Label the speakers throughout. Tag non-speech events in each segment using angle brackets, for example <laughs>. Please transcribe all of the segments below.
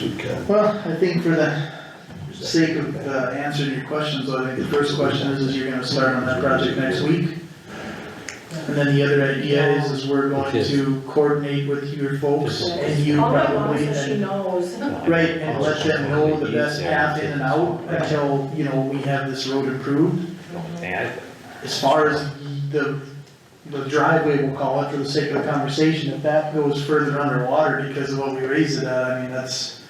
Speaker 1: Okay.
Speaker 2: Well, I think for the sake of uh, answering your questions, though, I think the first question is, is you're gonna start on that project next week. And then the other idea is, is we're going to coordinate with your folks and you
Speaker 3: All I want
Speaker 2: probably,
Speaker 3: is that she
Speaker 2: and,
Speaker 3: knows.
Speaker 2: right, and let them know the best path in and out until, you know, we have this road improved.
Speaker 4: Man,
Speaker 2: As far as the, the driveway, we'll call it, for the sake of the conversation, if that goes further underwater because of what we raised it at, I mean, that's,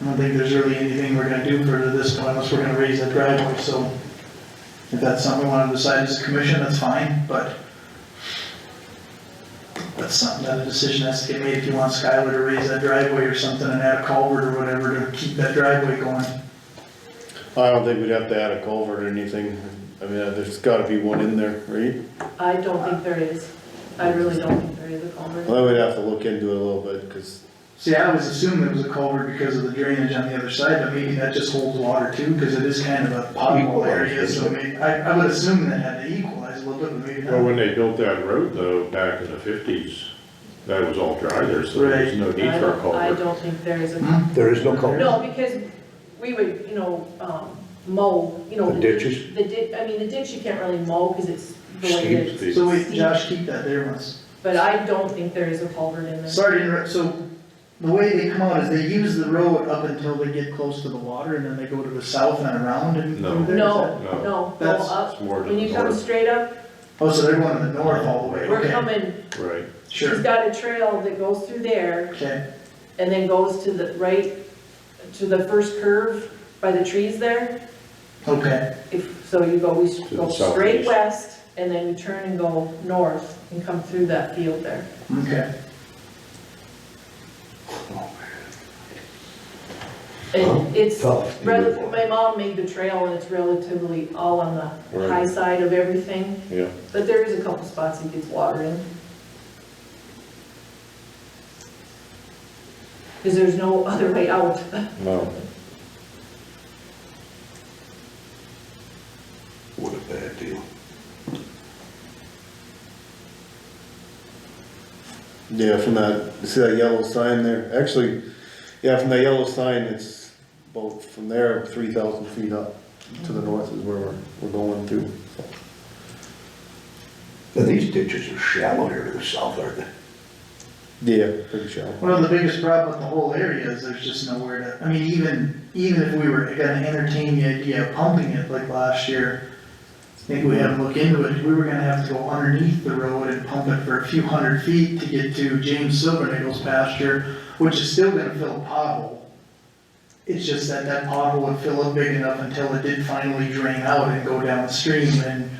Speaker 2: I don't think there's really anything we're gonna do further this point unless we're gonna raise that driveway, so if that's something we wanna decide as a commission, that's fine, but that's something that a decision has to get made if you want Skylar to raise that driveway or something and add a culvert or whatever to keep that driveway going.
Speaker 5: I don't think we'd have to add a culvert or anything, I mean, uh, there's gotta be one in there, right?
Speaker 3: I don't think there is. I really don't think there is a culvert.
Speaker 5: Well, we'd have to look into it a little bit, cause
Speaker 2: See, I always assumed there was a culvert because of the drainage on the other side, but maybe that just holds water too, because it is kind of a pothole area, so maybe, I, I would assume that had to equalize a little bit, but maybe
Speaker 6: Well,
Speaker 2: not.
Speaker 6: when they built that road though, back in the fifties, that was all dry there, so there's no need
Speaker 3: I
Speaker 6: for a
Speaker 3: don't, I
Speaker 6: culvert.
Speaker 3: don't think there is a,
Speaker 2: Hmm?
Speaker 1: There is no culvert,
Speaker 3: no, because we would, you know, um, mow, you know,
Speaker 1: the
Speaker 3: the
Speaker 1: ditches,
Speaker 3: ditch, I mean, the ditch you can't really mow because it's the way that it's.
Speaker 2: So wait, Josh, keep that there once.
Speaker 3: But I don't think there is a culvert in there.
Speaker 2: Sorry to interrupt, so the way they come out is they use the road up until they get close to the water and then they go to the south and around and
Speaker 6: No.
Speaker 2: through there? is
Speaker 3: No,
Speaker 6: No.
Speaker 3: no, go
Speaker 2: That's-
Speaker 3: up.
Speaker 6: It's more to
Speaker 3: When
Speaker 6: the
Speaker 3: you come
Speaker 6: north,
Speaker 3: straight up,
Speaker 2: that- Oh, so they're going to the north all the way,
Speaker 3: we're
Speaker 2: okay,
Speaker 3: coming,
Speaker 6: right.
Speaker 3: she's
Speaker 2: sure,
Speaker 3: got a trail that goes through there
Speaker 2: okay,
Speaker 3: and then goes to the right, to the first curve by the trees there.
Speaker 2: okay,
Speaker 3: If, so you go, we s-
Speaker 6: To
Speaker 3: go
Speaker 6: the
Speaker 3: straight
Speaker 6: southeast.
Speaker 3: west and then you turn and go north and come through that field there.
Speaker 2: okay.
Speaker 1: Huh?
Speaker 3: And it's,
Speaker 1: tough.
Speaker 3: rather, my mom made the trail and it's relatively all on the high side of everything.
Speaker 5: Yeah.
Speaker 3: But there is a couple spots it gets water in. Cause there's no other way out. <laughs>
Speaker 5: no,
Speaker 1: what a bad deal.
Speaker 5: yeah, from that, you see that yellow sign there, actually, yeah, from that yellow sign, it's about from there, three thousand feet up to the north is where we're, we're going to.
Speaker 1: And these ditches are shallow here to the south, aren't they?
Speaker 5: Yeah, pretty shallow.
Speaker 2: Well, the biggest problem with the whole area is there's just nowhere to, I mean, even, even if we were gonna entertain the idea of pumping it like last year, I think we had to look into it, we were gonna have to go underneath the road and pump it for a few hundred feet to get to James Silvernagel's pasture, which is still gonna fill a pothole. It's just that that pothole would fill up big enough until it did finally drain out and go downstream, and,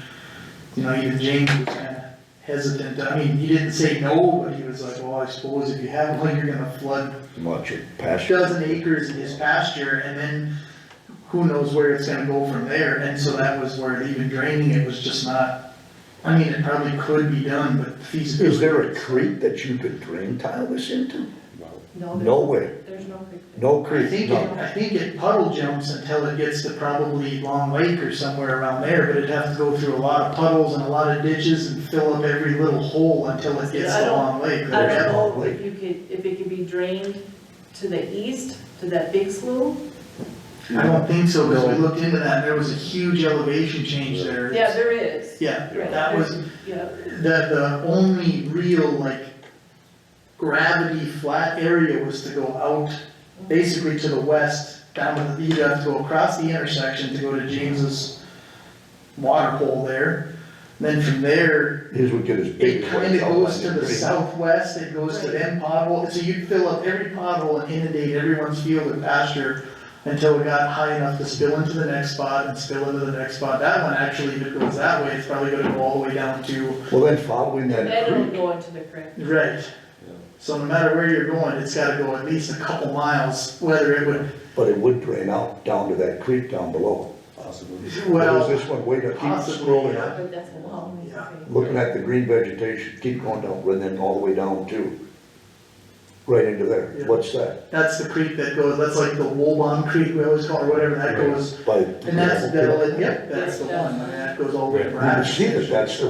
Speaker 2: you know, even James was kinda hesitant, I mean, he didn't say no, but he was like, well, I suppose if you have one, you're gonna flood
Speaker 1: Much of
Speaker 2: a
Speaker 1: pasture.
Speaker 2: dozen acres in his pasture, and then who knows where it's gonna go from there, and so that was where even draining it was just not, I mean, it probably could be done, but feasibility.
Speaker 1: Is there a creek that you could drain tile this into?
Speaker 3: No,
Speaker 1: No
Speaker 3: there's,
Speaker 1: way,
Speaker 3: there's no creek. there.
Speaker 1: no
Speaker 2: Oh, I
Speaker 1: creek,
Speaker 2: think, it-
Speaker 1: no.
Speaker 2: I think it puddle jumps until it gets to probably Long Lake or somewhere around there, but it'd have to go through a lot of puddles and a lot of ditches and fill up every little hole until it gets
Speaker 3: I
Speaker 2: to
Speaker 3: don't-
Speaker 2: Long Lake. or
Speaker 3: I
Speaker 2: Red Lake.
Speaker 3: don't know if you could, if it could be drained to the east, to that big slough.
Speaker 2: I don't think so, because we
Speaker 5: No.
Speaker 2: looked into that, and there was a huge elevation change there.
Speaker 3: Yeah, there is.
Speaker 2: Yeah,
Speaker 3: Right,
Speaker 2: that was,
Speaker 3: Yeah,
Speaker 2: the, the only real, like, gravity flat area was to go out, basically to the west, down to the, you'd have to go across the intersection to go to James's water hole there. Then from there,
Speaker 1: His would get as big
Speaker 2: it
Speaker 1: as.
Speaker 2: kinda goes to the
Speaker 1: south.
Speaker 2: southwest, it goes to them pothole, so you'd fill up every pothole and inundate everyone's field and pasture until it got high enough to spill into the next spot and spill into the next spot, that one actually, if it goes that way, it's probably gonna go all the way down to,
Speaker 1: Well, then following that
Speaker 3: then it'll
Speaker 1: creek,
Speaker 3: go into the creek.
Speaker 2: right. So no matter where you're going, it's gotta go at least a couple miles, whether it would,
Speaker 1: but it would drain out down to that creek down below.
Speaker 5: Possibly.
Speaker 1: But
Speaker 2: well,
Speaker 1: is this one way to keep
Speaker 2: possibly,
Speaker 1: scrolling
Speaker 2: yeah.
Speaker 1: up?
Speaker 3: But that's a long way to go.
Speaker 1: Looking at the green vegetation, keep going down, and then all the way down to, right into there.
Speaker 2: Yeah.
Speaker 1: What's that?
Speaker 2: that's the creek that goes, that's like the Woolbon Creek, we always call it, or whatever, that goes,
Speaker 1: By.
Speaker 2: and that's, that'll, yep, that's the one, I mean, that goes all the way
Speaker 1: You can
Speaker 2: around.
Speaker 1: see that that's the